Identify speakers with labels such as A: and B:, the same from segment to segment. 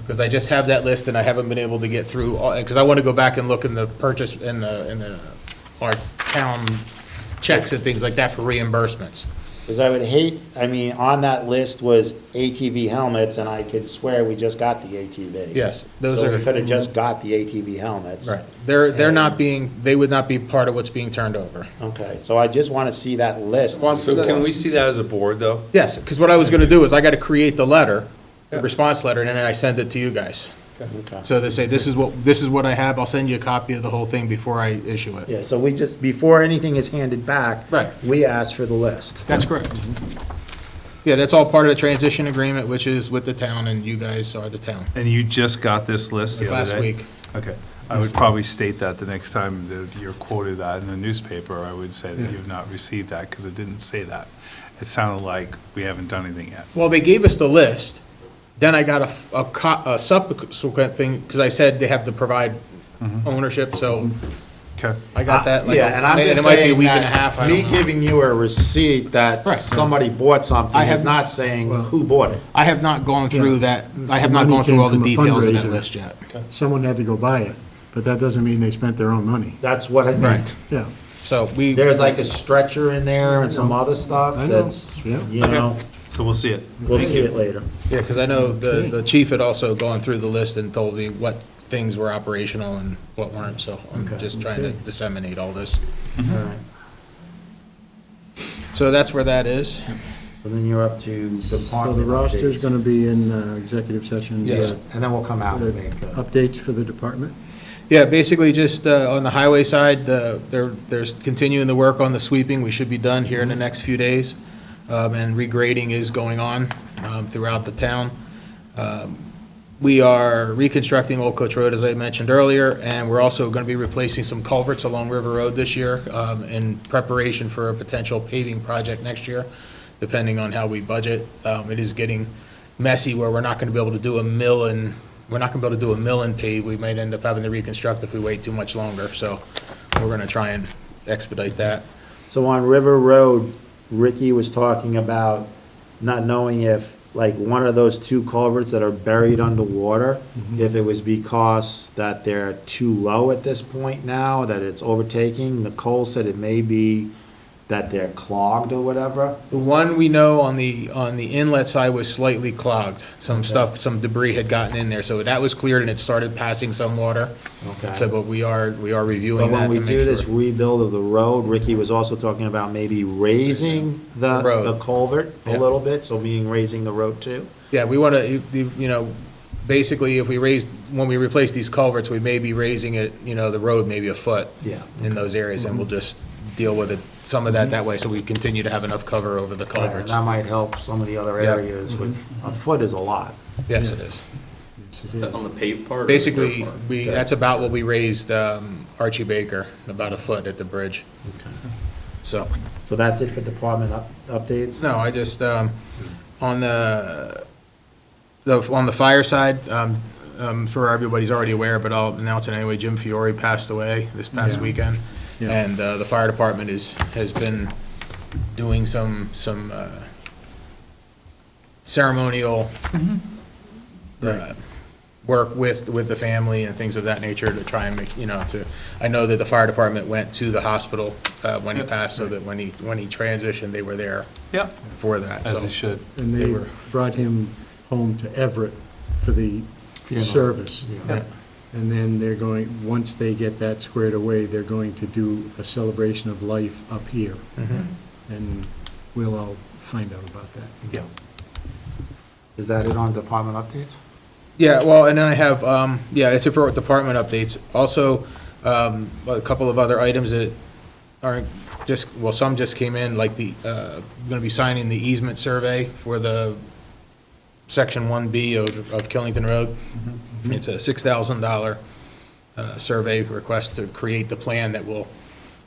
A: Because I just have that list and I haven't been able to get through, because I want to go back and look in the purchase, in the, in the, our town checks and things like that for reimbursements.
B: Because I would hate, I mean, on that list was ATV helmets, and I could swear we just got the ATV.
A: Yes, those
B: So
A: are-
B: we could have just got the ATV helmets.
A: Right. They're, they're not being, they would not be part of what's being turned over.
B: Okay, so I just want to see that list.
A: Well,
C: So can we see that as a board, though?
A: Yes, because what I was going to do is I got to create the letter, the response letter, and then I send it to you guys.
B: Okay.
A: So they say, this is what, this is what I have, I'll send you a copy of the whole thing before I issue it.
B: Yeah, so we just, before anything is handed back.
A: Right.
B: We ask for the list.
A: That's correct. Yeah, that's all part of the transition agreement, which is with the town, and you guys are the town.
C: And you just got this list the other
A: Last
C: day?
A: week.
C: Okay. I would probably state that the next time that you're quoted that in the newspaper, I would say that you've not received that, because it didn't say that. It sounded like we haven't done anything yet.
A: Well, they gave us the list, then I got a, a co- a subsequent thing, because I said they have to provide ownership, so
C: Okay.
A: I got that. like,
B: Yeah, and I'm just
A: it might be a
B: saying
A: week and a half,
B: that
A: I
B: me
A: don't know.
B: giving you a receipt that
A: Right.
B: somebody bought something
A: I
B: is
A: have-
B: not saying who bought it.
A: I have not gone through that, I have not
D: Money
A: gone through
D: came
A: all the
D: from a
A: details of that
D: fundraiser.
A: list yet.
D: Someone had to go buy it, but that doesn't mean they spent their own money.
B: That's what I meant.
D: Yeah,
A: So we.
B: There's like a stretcher in there and some other stuff
D: I know,
B: that's,
D: yeah.
B: you know,
C: So we'll see it.
B: we'll see it later.
A: Yeah, because I know the, the chief had also gone through the list and told me what things were operational and what weren't, so I'm
D: Okay.
A: just trying to disseminate all this.
B: All right.
A: So that's where that is.
B: So then you're up to
D: so the
B: department
D: roster's
B: updates.
D: gonna be in uh, executive session.
A: Yes.
D: uh,
B: And then we'll come out
D: the
B: and make, uh,
D: Updates for the department.
A: Yeah, basically just uh, on the highway side, the, there, there's continuing the work on the sweeping. We should be done here in the next few days. Um, And regrading is going on um, throughout the town. Um, We are reconstructing Old Coach Road, as I mentioned earlier, and we're also going to be replacing some culverts along River Road this year um, in preparation for a potential paving project next year, depending on how we budget. Um, It is getting messy where we're not going to be able to do a mill and we're not gonna be able to do a mill and pave, we might end up having to reconstruct if we wait too much longer, so we're gonna try and expedite that.
B: so on River Road, Ricky was talking about not knowing if, like, one of those two culverts that are buried underwater, if it was because that they're too low at this point now, that it's overtaking. Nicole said it may be that they're clogged or whatever.
A: The one we know on the, on the inlet side was slightly clogged, some stuff, some debris had gotten in there, so that was cleared and it started passing some water.
B: Okay.
A: So, but we are, we are
B: But
A: reviewing
B: when
A: that
B: we
A: to
B: do
A: make
B: this
A: sure.
B: rebuild of the road, Ricky was also talking about maybe raising the,
A: The road.
B: the culvert a
A: Yeah.
B: little bit, so meaning raising the road too.
A: Yeah, we wanna, you you know, basically, if we raise, when we replace these culverts, we may be raising it, you know, the road maybe a foot.
B: Yeah.
A: In those areas, and we'll
B: Mm-hmm.
A: just deal with it, some of that that way, so we continue to have enough cover over the
B: Right, And
A: culverts.
B: that might help some of the other
A: Yeah. Mm-hmm.
B: areas with, a foot is a lot.
A: Yes, it is.
E: Is that on the paved part? or the dirt
A: Basically,
E: part?
A: we, that's about what we raised um, Archie Baker, about a foot at the bridge. So,
B: So that's it for department up, updates?
A: no, I just, um, on the, the, on the fire side, um, um, for everybody's already aware, but I'll announce it anyway, Jim Fiore passed away this past
D: Yeah.
A: weekend.
D: Yeah.
A: And uh, the fire department is, has been doing some, some uh, ceremonial
D: Mm-hmm.
A: uh, work with, with the family and things of that nature to try and make, you know, to, I know that the fire department went to the hospital uh, when he passed, so that when he, when he transitioned, they were there
C: Yep.
A: for that, so.
C: As it should.
D: And
A: They
D: they
A: were-
D: brought him home to Everett for the service.
C: Yeah.
D: And then they're going, once they get that squared away, they're going to do a celebration of life up here. And we'll all find out about that.
C: Yeah.
B: Is that it on department updates?
A: Yeah, well, and then I have, um, yeah, it's it for department updates. Also, um, a couple of other items that aren't just, well, some just came in, like the, uh, gonna be signing the easement survey for the section one B of, of Killington Road.
C: Mm-hmm.
A: It's a six thousand dollar, uh, survey request to create the plan that will,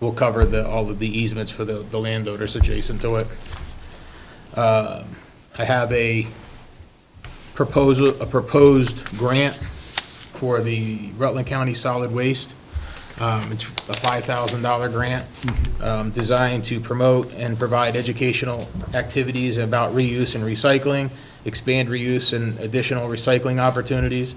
A: will cover the, all of the easements for the, the landowners adjacent to it. Um, I have a proposal, a proposed grant for the Rutland County Solid Waste. Um, It's a $5,000 grant um, designed to promote and provide educational activities about reuse and recycling, expand reuse and additional recycling opportunities,